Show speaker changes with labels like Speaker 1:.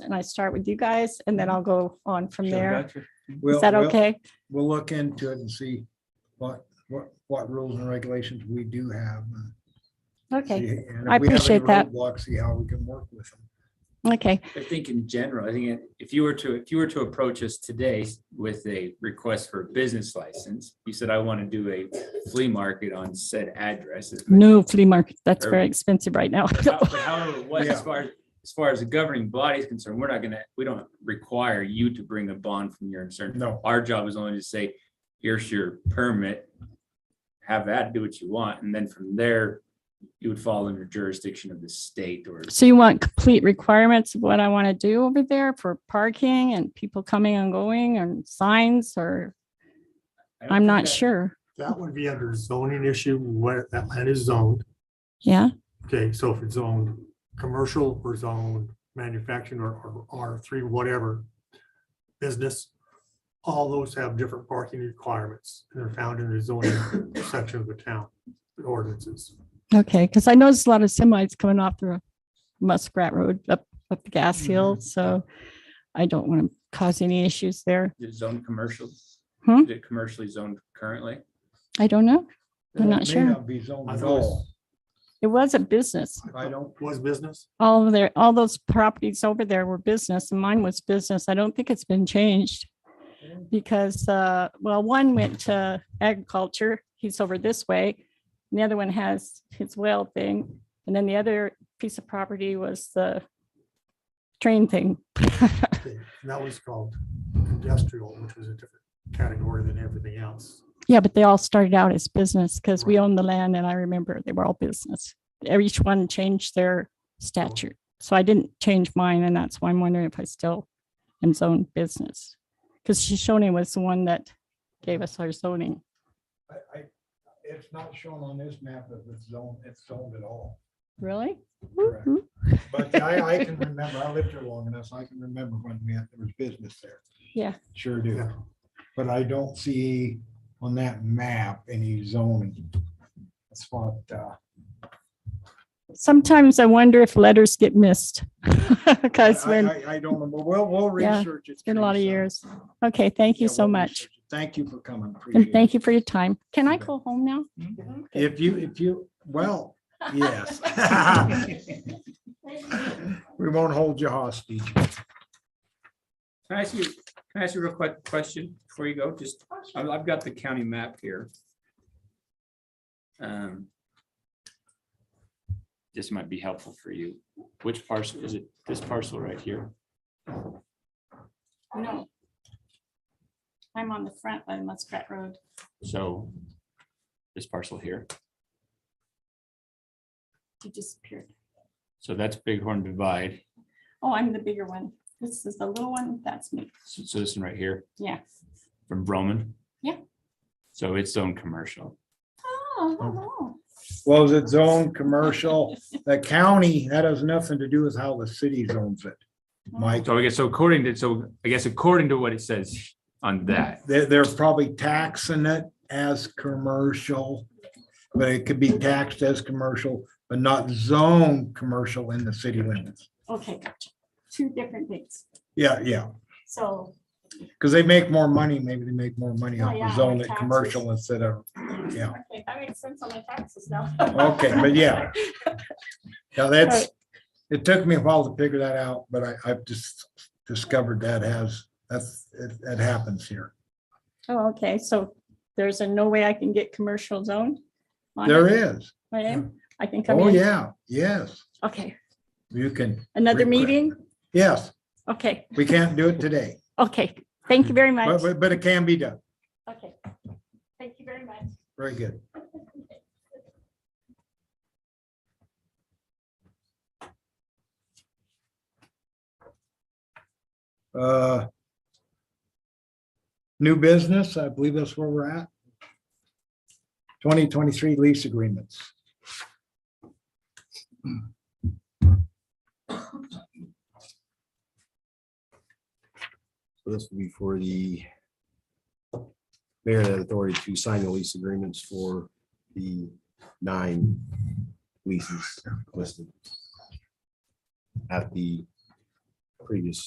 Speaker 1: and I start with you guys and then I'll go on from there.
Speaker 2: We'll-
Speaker 1: Is that
Speaker 2: we'll-
Speaker 1: okay?
Speaker 2: We'll look into it and see what, what, what rules and regulations we do have. and
Speaker 1: Okay,
Speaker 2: see- and if
Speaker 1: I
Speaker 2: we have any
Speaker 1: appreciate that.
Speaker 2: roadblocks, see how we can work with them.
Speaker 1: okay,
Speaker 3: I think in general, I think if you were to, if you were to approach us today with a request for a business license, you said, I want to do a flea market on said address. if-
Speaker 1: no flea market, that's
Speaker 3: Or-
Speaker 1: very expensive right now.
Speaker 3: How- but However, it was,
Speaker 2: Yeah.
Speaker 3: as far, as as far as the governing body is concerned, we're not gonna, we don't require you to bring a bond from your insurance.
Speaker 2: No,
Speaker 3: Our job is only to say, here's your permit, have that, do what you want, and then from there, you would fall under jurisdiction of the state or
Speaker 1: So you want complete requirements of what I want to do over there for parking and people coming and going and signs or
Speaker 3: I don't
Speaker 1: I'm
Speaker 3: think
Speaker 1: not
Speaker 3: that-
Speaker 1: sure.
Speaker 4: That would be under zoning issue where that land is zoned.
Speaker 1: Yeah,
Speaker 4: Okay, so if it's zoned commercial or zoned manufacturing or R three, whatever. Business, all those have different parking requirements. and They're found in the zoning section of the town ordinances.
Speaker 1: okay, because I noticed a lot of semis coming off the Muskrat Road up, up the gas
Speaker 2: Mm-hmm.
Speaker 1: hill, so I don't want to cause any issues there.
Speaker 3: Is it zoned commercial?
Speaker 1: Hmm?
Speaker 3: Is it commercially zoned currently?
Speaker 1: I don't know. I'm
Speaker 2: It
Speaker 1: not
Speaker 2: may
Speaker 1: sure.
Speaker 2: not Be zoned
Speaker 4: I
Speaker 2: at
Speaker 4: thought it was-
Speaker 2: all.
Speaker 1: It was a business.
Speaker 2: I don't-
Speaker 4: Was business?
Speaker 1: All of their, all those properties over there were business and mine was business. I don't think it's been changed. Because, uh, well, one went to agriculture. He's over this way. And the other one has his whale thing. And then the other piece of property was the train thing.
Speaker 4: Okay, and That was called industrial, which was a different category than everything else.
Speaker 1: Yeah, but they all started out as business because we owned the land and I remember they were all business. Each one changed their statute. So I didn't change mine and that's why I'm wondering if I still am zoned business. Because Shoshone was the one that gave us our zoning.
Speaker 2: I, I, it's not shown on this map if it's zoned, it's zoned at all.
Speaker 1: Really?
Speaker 2: Correct.
Speaker 1: Mm-hmm.
Speaker 2: But I, I can remember, I lived here long enough, I can remember when we had, there was business there.
Speaker 1: Yeah.
Speaker 2: Sure do.
Speaker 4: Yeah.
Speaker 2: But I don't see on that map any zoning. That's what, uh,
Speaker 1: Sometimes I wonder if letters get missed. Because
Speaker 2: I-
Speaker 1: when,
Speaker 2: I, I don't know, but we'll, we'll
Speaker 1: Yeah,
Speaker 2: research it. It's
Speaker 1: been a lot of years. okay, thank you so much.
Speaker 2: Thank you for coming.
Speaker 1: And
Speaker 2: Appreciate
Speaker 1: thank
Speaker 2: it.
Speaker 1: you for your time. Can I go home now?
Speaker 2: If you, if you, well, yes. We won't hold you hostage.
Speaker 3: Can I ask you, can I ask you a real quick question before you go? Just, I've, I've got the county map here. Um, This might be helpful for you. Which parcel is it? This parcel right here?
Speaker 1: No. I'm on the front by Muskrat Road.
Speaker 3: So this parcel here.
Speaker 1: You disappeared.
Speaker 3: So that's Bighorn Divide.
Speaker 1: Oh, I'm the bigger one. This is the little one. That's me.
Speaker 3: So so this one right here
Speaker 1: Yeah.
Speaker 3: from Broman.
Speaker 1: Yeah.
Speaker 3: So it's zoned commercial.
Speaker 1: Oh, hello.
Speaker 2: Was it zone commercial? The county, that has nothing to do with how the city zones it. Mike,
Speaker 3: So I guess, so according to, so I guess according to what it says on that,
Speaker 2: they're, they're probably taxing it as commercial. But it could be taxed as commercial, but not zone commercial in the city limits.
Speaker 1: Okay, gotcha. Two different things.
Speaker 2: Yeah, yeah.
Speaker 1: So,
Speaker 2: Because they make more money, maybe they make more money
Speaker 1: Oh,
Speaker 2: on
Speaker 1: yeah,
Speaker 2: the zone
Speaker 1: on
Speaker 2: at
Speaker 1: taxes.
Speaker 2: commercial instead of, yeah,
Speaker 1: okay, that makes sense on my taxes now.
Speaker 2: okay, but yeah. Now that's, it took me a while to figure that out, but I, I've just discovered that has, that's, it, it happens here.
Speaker 1: Oh, okay. So there's a no way I can get commercial zone? on
Speaker 2: There
Speaker 1: it?
Speaker 2: is.
Speaker 1: I am? I can come
Speaker 2: Oh,
Speaker 1: in?
Speaker 2: yeah, yes,
Speaker 1: Okay,
Speaker 2: you can,
Speaker 1: another
Speaker 2: Request.
Speaker 1: meeting?
Speaker 2: yes,
Speaker 1: Okay,
Speaker 2: we can't do it today,
Speaker 1: okay. Thank you very
Speaker 2: but,
Speaker 1: much.
Speaker 2: but- but it can be done.
Speaker 1: Okay. Thank you very much.
Speaker 2: Very good. Uh, New business, I believe that's where we're at. Twenty twenty-three lease agreements.
Speaker 5: So this will be for the mayor and authority to sign the lease agreements for the nine leases listed at the previous